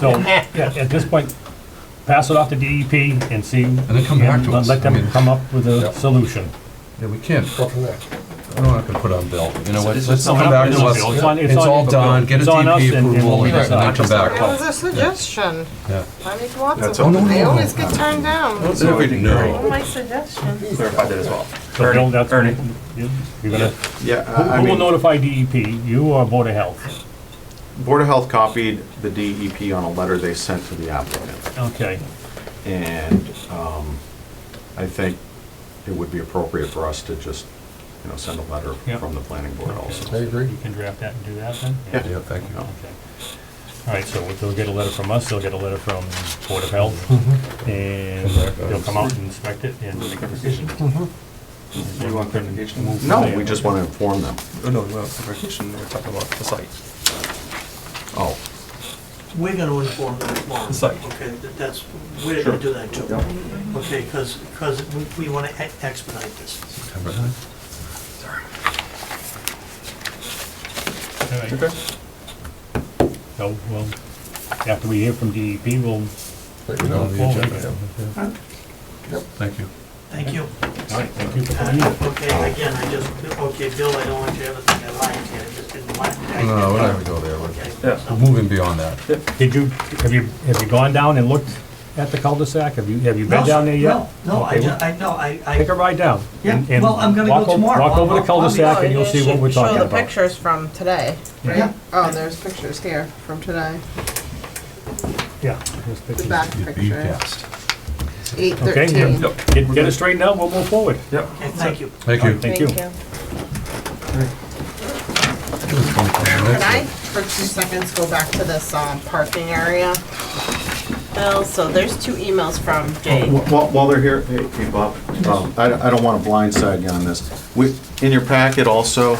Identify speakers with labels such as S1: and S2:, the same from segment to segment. S1: So, yeah, at this point, pass it off to DEP and see. And
S2: then come back to us.
S1: Let
S2: I mean-
S1: them come up with
S2: Yeah.
S1: a solution.
S2: Yeah, we can't,
S3: Go from there.
S2: we're not gonna put on bill, you know what,
S4: It's
S2: let's
S4: just-
S2: come back to us,
S1: It's on- it's on-
S2: it's all done, get a
S1: It's on us
S2: DP
S1: and- and
S2: approval,
S1: we'll
S2: and then
S1: decide.
S2: come
S5: It was
S2: back.
S5: a suggestion.
S2: Yeah.
S5: I make lots
S4: That's
S5: of
S4: all.
S5: them. They always get turned down.
S4: So I think Ernie
S5: my suggestions.
S4: clarified that as well.
S1: So Bill, that's.
S4: Ernie,
S1: You're gonna,
S4: yeah, I I
S1: who will
S4: mean,
S1: notify DEP, you or Board of Health?
S4: Board of Health copied the DEP on a letter they sent to the applicant.
S1: Okay,
S4: And um, I think it would be appropriate for us to just, you know, send a letter
S1: Yeah.
S4: from the planning board also.
S3: I agree.
S1: you can draft that and do that then?
S4: Yeah.
S2: Yeah, thank you.
S1: Okay. All right, so they'll get a letter from us, they'll get a letter from Board of Health,
S2: Mm-hmm.
S1: and they'll come out and inspect it and make a decision.
S6: You want clarification?
S1: Move from
S4: Mm-hmm. No,
S1: there.
S4: we just want to inform them.
S6: Oh, no, we want clarification, we're talking about the site.
S4: Oh,
S7: We're gonna inform them tomorrow.
S6: The site.
S7: Okay, that- that's, we're gonna do that too. Okay, because, because we wanna e- expedite this.
S1: All right. So, well, after we hear from DEP, we'll,
S3: But, you
S2: Put it
S3: know,
S2: on the agenda.
S1: Forward.
S3: Yep.
S2: Thank you.
S7: Thank you.
S1: all right, thank you for
S7: Uh,
S1: coming in.
S7: Okay, again, I just, okay, Bill, I don't want you to ever think I lied to you, I just didn't want.
S2: No, no, we're not gonna go there, we're-
S7: Okay.
S6: Yeah.
S2: we're moving beyond that.
S1: Did you, have you, have you gone down and looked at the cul-de-sac? Have you, have you been
S7: No,
S1: down there yet?
S7: No, no, I,
S1: Okay,
S7: ju- I, no, I,
S1: Take a
S7: I,
S1: ride down.
S7: Yeah,
S1: and- and
S7: well, I'm gonna go
S1: walk o-
S7: tomorrow.
S1: Walk over the
S7: I'll- I'll be-
S1: cul-de-sac and you'll see what we're talking
S5: Show the
S1: about.
S5: pictures from today.
S7: yeah,
S5: Oh, there's pictures here from today.
S1: Yeah. there's
S5: The
S1: pictures.
S5: back
S2: You'd be
S5: picture,
S2: fast.
S5: eight
S1: Okay,
S5: thirteen.
S1: yeah. Get, get it straightened out, we'll move forward.
S6: Yep.
S7: okay, thank you.
S2: Thank you.
S1: Thank you.
S5: Can I, for two seconds, go back to this, um, parking area? Bill, so there's two emails from Jake.
S4: Wh- While, while they're here, hey, hey, Bob, um, I, I don't want to blindside you on this. We, in your packet also,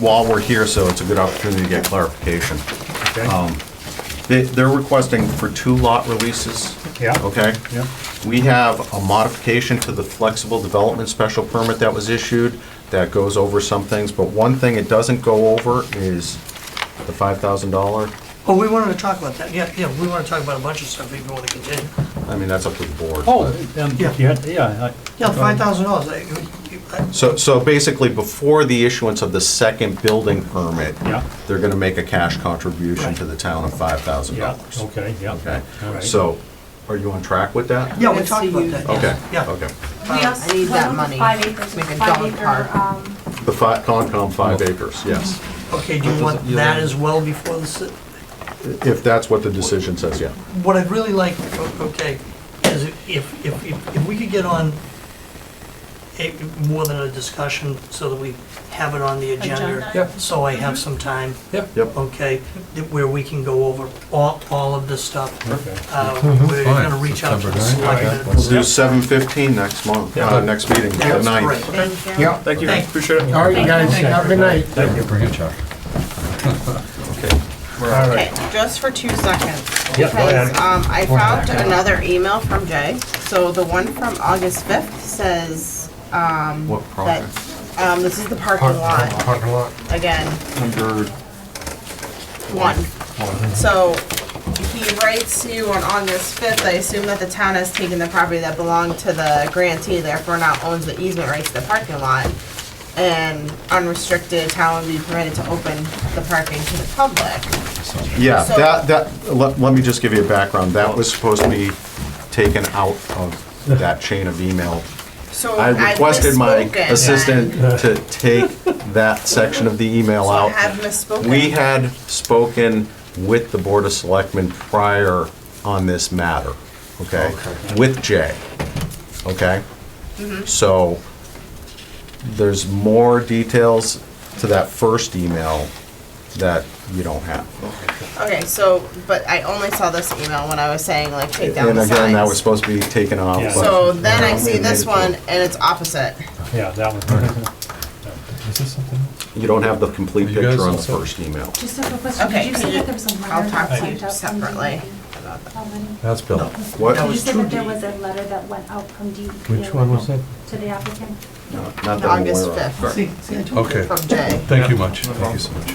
S4: while we're here, so it's a good opportunity to get clarification.
S1: Okay.
S4: Um, They, they're requesting for two lot releases,
S1: Yeah,
S4: okay?
S1: yeah.
S4: We have a modification to the flexible development special permit that was issued that goes over some things, but one thing it doesn't go over is the five thousand dollar.
S7: Oh, we wanted to talk about that, yeah, yeah, we wanna talk about a bunch of stuff if you wanna continue.
S4: I mean, that's up to the board.
S1: Oh, um,
S7: Yeah.
S1: yeah, yeah, I-
S7: Yeah, five thousand dollars,
S5: Um,
S4: So, so basically, before the issuance of the second building permit,
S1: Yeah.
S4: they're gonna make a cash contribution to the town of five thousand
S1: yeah,
S4: dollars.
S1: okay, yeah.
S4: Okay,
S1: All right.
S4: so, are you on track with that?
S7: yeah, we talked about that,
S4: Okay,
S7: yeah, yeah.
S4: okay.
S8: We also,
S5: I need that
S8: what was
S5: money.
S8: the five acres,
S5: Make a
S8: five
S5: dog
S8: acre,
S5: park.
S8: um,
S4: The fi, Concom five acres, yes.
S7: Okay, do you want that as well before the, si-
S4: If that's what the decision says, yeah.
S7: what I'd really like, o- okay, is if, if, if if we could get on a, more than a discussion, so that we have it on the agenda.
S8: Agenda.
S6: Yep.
S7: So I have some time,
S4: Yep,
S7: okay, that- where we can go over all, all of this stuff.
S1: Okay.
S7: Uh, We're
S2: Fine,
S7: gonna reach out to the
S2: September ninth.
S7: selectmen.
S4: let's do seven fifteen next month, uh, next meeting, the
S7: That's
S4: ninth.
S7: great.
S8: thank you.
S3: Yeah,
S6: Thank you,
S7: Thank-
S6: appreciate it.
S3: all right, you guys, have a good night.
S2: Thank you. Bring it, Chuck.
S3: All
S5: Okay,
S3: right.
S5: just for two seconds.
S1: Yeah, go ahead.
S5: Because, um, I found another email from Jay. So the one from August fifth says, um,
S4: What
S5: that,
S4: project?
S5: um, this is the parking
S3: Parking
S5: lot,
S3: Parking lot.
S5: again,
S6: Number
S5: one. So he writes to you on August fifth, I assume that the town has taken the property that belonged to the grantee, therefore now owns the easement rights to the parking lot. And unrestricted, town would be permitted to open the parking to the public.
S4: Yeah,
S5: So-
S4: that, that, let, let me just give you a background, that was supposed to be taken out of that chain of email
S5: So
S4: I requested my
S5: misspoken then.
S4: assistant to take that section of the email
S5: So I have
S4: out.
S5: misspoken.
S4: We had spoken with the Board of Selectmen prior on this matter, okay? With Jay, okay? So there's more details to that first email that you don't have.
S5: Okay, so, but I only saw this email when I was saying like take down
S4: And
S5: the
S4: again, that was
S5: signs.
S4: supposed to be taken off.
S1: Yeah.
S4: but-
S5: So then I
S4: Yeah, we
S5: see this
S4: made it to-
S5: one and it's opposite.
S1: Yeah, that one.
S2: Is this something else?
S4: You don't have the complete
S2: Are you guys
S4: picture on the
S2: also-
S4: first email.
S8: Just a quick question,
S5: Okay,
S8: did you
S5: could
S8: say
S5: you-
S8: that there was a letter?
S5: I'll talk
S8: that
S5: to you
S8: went out from E
S5: separately.
S8: DEP? How many?
S2: That's Bill.
S4: What?
S7: That
S8: Um, Did you
S7: was
S8: say
S7: too
S8: that there
S7: deep.
S8: was a letter that went out from DEP?
S2: it?
S8: To the applicant?
S4: Not that I'm
S5: August
S4: aware of.
S5: fifth
S7: See, see, I told you.
S2: Okay,
S5: from Jay.
S2: thank you much, thank you so much.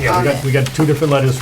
S1: Yeah, we got, we got two different letters